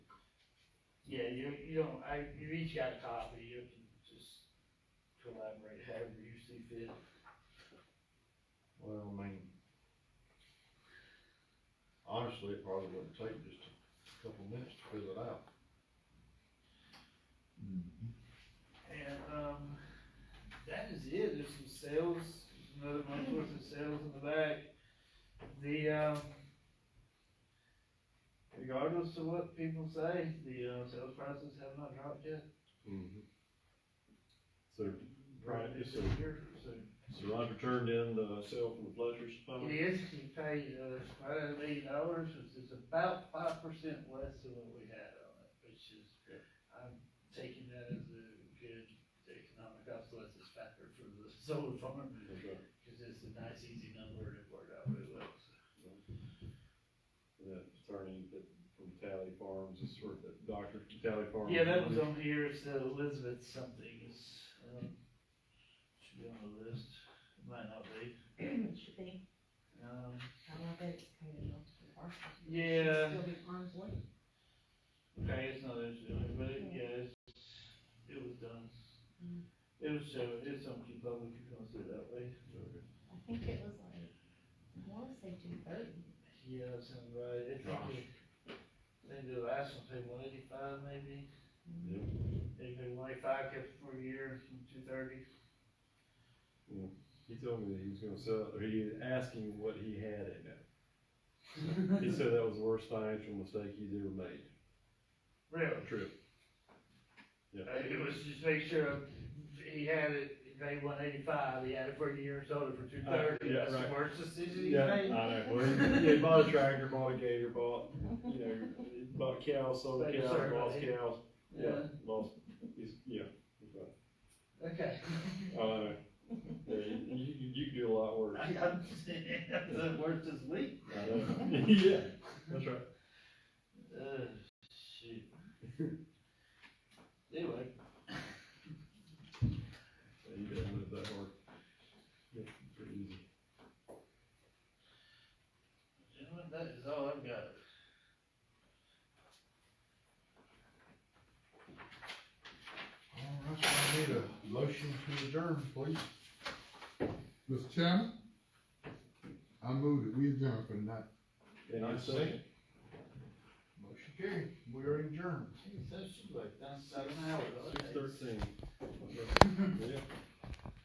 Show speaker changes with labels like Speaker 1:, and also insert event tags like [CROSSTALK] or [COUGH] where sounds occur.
Speaker 1: Yeah, you, you don't, I, you each got a copy, you can just collaborate however you see fit.
Speaker 2: Well, I mean, honestly, it probably wouldn't take just a couple minutes to fill it out.
Speaker 1: And, um, that is it, there's some sales, another month worth of sales in the back. The, um, regardless of what people say, the, uh, sales prices have not dropped yet.
Speaker 3: So, Right, it's a-
Speaker 1: So-
Speaker 3: so Roger turned in the sale from the Fletcher's
Speaker 1: It
Speaker 3: phone?
Speaker 1: is, he paid, uh, quite a million dollars, which is about five percent less than what we had on it, which is, I'm taking that as a good economic obsolescence factor for the solar farm,
Speaker 3: Okay.
Speaker 1: cause it's a nice, easy number to work out really well, so.
Speaker 3: That attorney that from Tally Farms, this sort of that doctor from Tally Farms.
Speaker 1: Yeah, that was on here, it's uh, Elizabeth something, it's, um, should be on the list, It might not be,
Speaker 4: It should be,
Speaker 1: um,
Speaker 4: I don't know if it's kind of built to the parcel.
Speaker 1: Yeah.
Speaker 4: Still be arms length.
Speaker 1: Okay, it's not interesting, but it, yeah, it's, it was done.
Speaker 4: Mm.
Speaker 1: It was, so it's something public, you can see it that way.
Speaker 3: Okay.
Speaker 4: I think it was like, I wanna say two thirty.
Speaker 1: Yeah, that sounds right. It
Speaker 2: Gosh.
Speaker 1: probably, maybe the last one paid one eighty-five maybe.
Speaker 3: Yep.
Speaker 1: They paid one eighty-five, kept it for a year, from two thirty.
Speaker 3: He told me that he was gonna sell, it, or he was asking what he had in it.
Speaker 1: [LAUGHS]
Speaker 3: He said that was the worst financial mistake he's ever made.
Speaker 1: Really?
Speaker 3: Trip. Yeah.
Speaker 1: Uh, It was just make sure he had it, he paid one eighty-five, he had it for a year, sold it for two thirty.
Speaker 3: yeah,
Speaker 1: That's the
Speaker 3: right.
Speaker 1: worst decision he
Speaker 3: Yeah, I
Speaker 1: made.
Speaker 3: know. Well, he, he bought a tractor, bought a gator, bought, you know, bought cows, sold
Speaker 1: Thank you,
Speaker 3: cows,
Speaker 1: sir.
Speaker 3: lost cows. Yeah, lost, he's, yeah. he's right.
Speaker 1: Okay. [LAUGHS]
Speaker 3: Uh, yeah, you, you, you can do a lot worse.
Speaker 1: I, I'm, the worst this week.
Speaker 3: I know. [LAUGHS] Yeah, that's right.
Speaker 1: Uh, shoot. [LAUGHS] Anyway,
Speaker 3: Yeah, You didn't live that hard. Yeah, pretty easy.
Speaker 1: gentlemen, that is all I've got.
Speaker 2: All right, so I need a motion to adjourn, please.
Speaker 5: Mr. Chairman, I move that we adjourn for the night.
Speaker 3: And I second.
Speaker 2: Motion carried, we are [LAUGHS] adjourned.
Speaker 1: Geez, that should like, that's, I don't know. how it was.
Speaker 3: Six thirteen. Yeah.